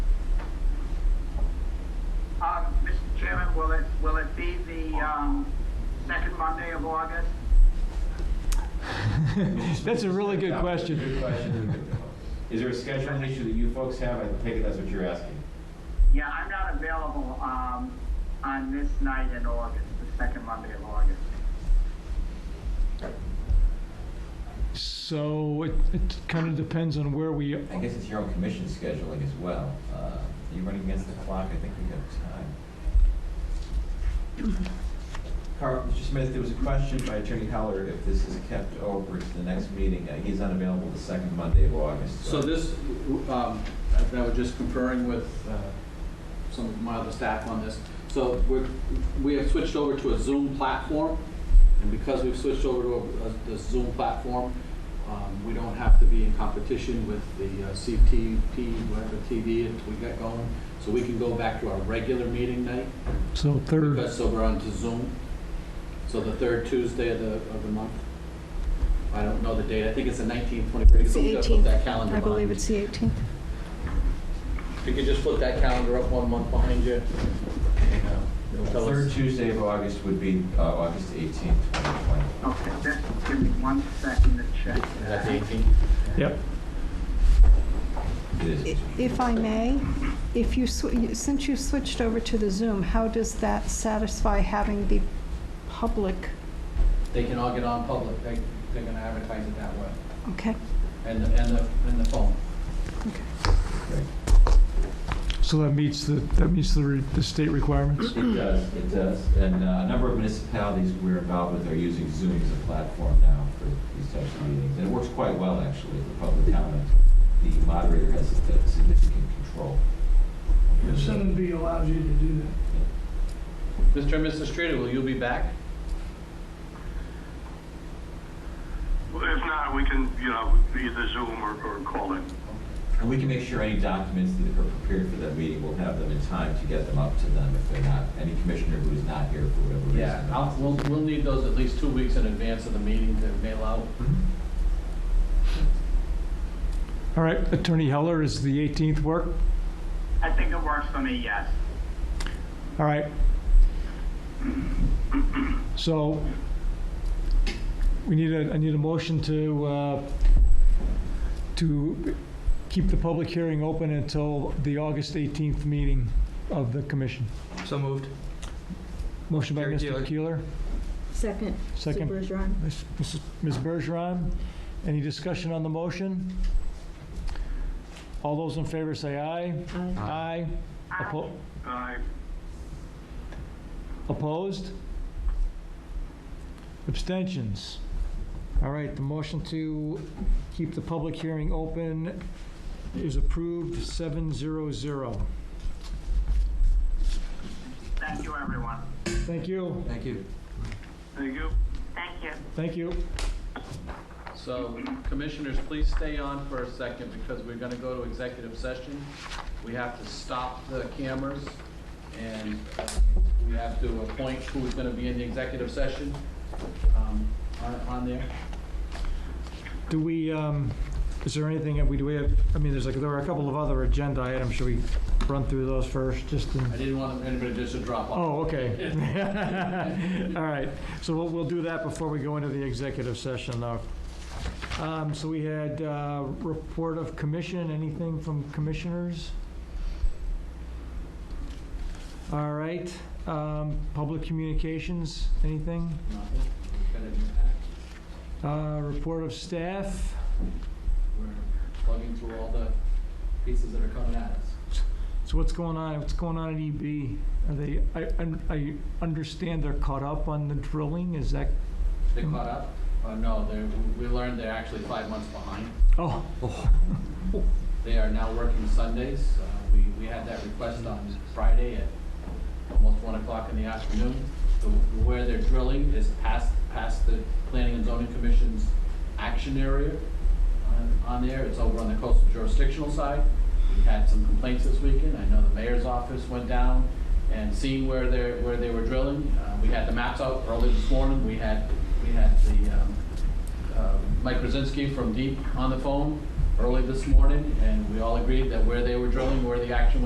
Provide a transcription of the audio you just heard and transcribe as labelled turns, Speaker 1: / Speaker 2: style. Speaker 1: Um, Monday of August?
Speaker 2: That's a really good question.
Speaker 3: Good question. Is there a scheduling issue that you folks have? I take it that's what you're asking.
Speaker 1: Yeah, I'm not available, um, on this night in August, the second Monday of August.
Speaker 2: So it, it kind of depends on where we,
Speaker 4: I guess it's your own commission scheduling as well. Uh, Are you running against the clock? I think we have time. Carl, Mr. Smith, there was a question by Attorney Heller if this is kept over to the next meeting. Uh, He's unavailable the second Monday of August.
Speaker 5: So this, um, I I was just conferring with uh, some of my other staff on this. So we're, we have switched over to a Zoom platform, and because we've switched over to a- the Zoom platform, um, we don't have to be in competition with the uh, CTP, whatever TV it- we got going. So we can go back to our regular meeting night,
Speaker 2: so third,
Speaker 5: because so we're onto Zoom. So the third Tuesday of the, of the month. I don't know the date, I think it's the 19th, 21st.
Speaker 6: It's the
Speaker 5: We've got to put that
Speaker 6: 18th.
Speaker 5: calendar
Speaker 6: I believe
Speaker 5: behind.
Speaker 6: it's the 18th.
Speaker 5: If you could just flip that calendar up one month behind you. and, uh, it'll tell us-
Speaker 4: Third Tuesday of August would be uh, August 18th, 2020.
Speaker 1: Okay, just give me one second to check.
Speaker 5: Is that the 18th?
Speaker 2: yep.
Speaker 4: It is.
Speaker 6: I- If I may, if you, sw- you- since you switched over to the Zoom, how does that satisfy having the public?
Speaker 5: They can all get on public, they, they're gonna advertise it that way,
Speaker 6: Okay,
Speaker 5: and, the- and the, and the phone.
Speaker 6: okay.
Speaker 2: So that meets the, that meets the, re- the state requirements?
Speaker 4: It does, it does. And uh, a number of municipalities we're involved with are using Zoom as a platform now for these types of meetings. And it works quite well, actually, for public comment. The moderator has uh, significant control.
Speaker 7: Sending B allows you to do that.
Speaker 5: Mr. and Mrs. Streeter, will you be back?
Speaker 8: Well, If not, we can, you know, either Zoom or, or call in.
Speaker 4: And we can make sure any documents that are prepared for that meeting, we'll have them in time to get them up to them if they're not, any commissioner who is not here for whatever reason.
Speaker 5: I'll, we'll, we'll need those at least two weeks in advance of the meeting to mail out.
Speaker 2: All right, Attorney Heller, is the 18th work?
Speaker 1: I think it works for me, yes.
Speaker 2: All right. So we need a, I need a motion to, uh, to keep the public hearing open until the August 18th meeting of the commission.
Speaker 9: So moved.
Speaker 2: Motion by
Speaker 9: Gary
Speaker 2: Mr.
Speaker 9: Keeler.
Speaker 2: Keeler,
Speaker 6: Second,
Speaker 2: second
Speaker 6: Bergeron.
Speaker 2: Ms. Mrs. Ms. Bergeron, any discussion on the motion? All those in favor say aye. Aye. Oppo-
Speaker 8: I,
Speaker 2: Opposed? Abstentions? All right, the motion to keep the public hearing open is approved, 700.
Speaker 1: Thank you, everyone.
Speaker 2: Thank you,
Speaker 9: Thank you.
Speaker 8: thank you.
Speaker 1: Thank you.
Speaker 2: thank you.
Speaker 5: So commissioners, please stay on for a second because we're gonna go to executive session. We have to stop the cameras and uh, we have to appoint who's gonna be in the executive session um, on on there.
Speaker 2: Do we, um, is there anything, that we, do we have, I mean, there's like, there are a couple of other agenda items, should we run through those first, just in?
Speaker 5: I didn't want anybody just to drop off.
Speaker 2: Oh, okay. All right, so we'll, we'll do that before we go into the executive session, though. Um, So we had uh, report of commission, anything from commissioners? All right, um, public communications, anything?
Speaker 5: Nothing. Got an impact.
Speaker 2: Uh, Report of staff?
Speaker 5: We're plugging through all the pieces that are coming at us.
Speaker 2: So what's going on, what's going on at EB? Are they, I, I understand they're caught up on the drilling, is that,
Speaker 5: They caught up? Uh, no, they're, we learned they're actually five months behind.
Speaker 2: oh, oh,
Speaker 5: They are now working Sundays. Uh, We, we had that request on Friday at almost one o'clock in the afternoon. The- Where they're drilling is past, past the Planning and Zoning Commission's action area on- on there. It's over on the coastal jurisdictional side. We had some complaints this weekend. I know the mayor's office went down and seeing where they're, where they were drilling. Uh, We had the maps out early this morning. We had, we had the um, uh, Mike Krasinski from Deep on the phone early this morning, and we all agreed that where they were drilling, where the action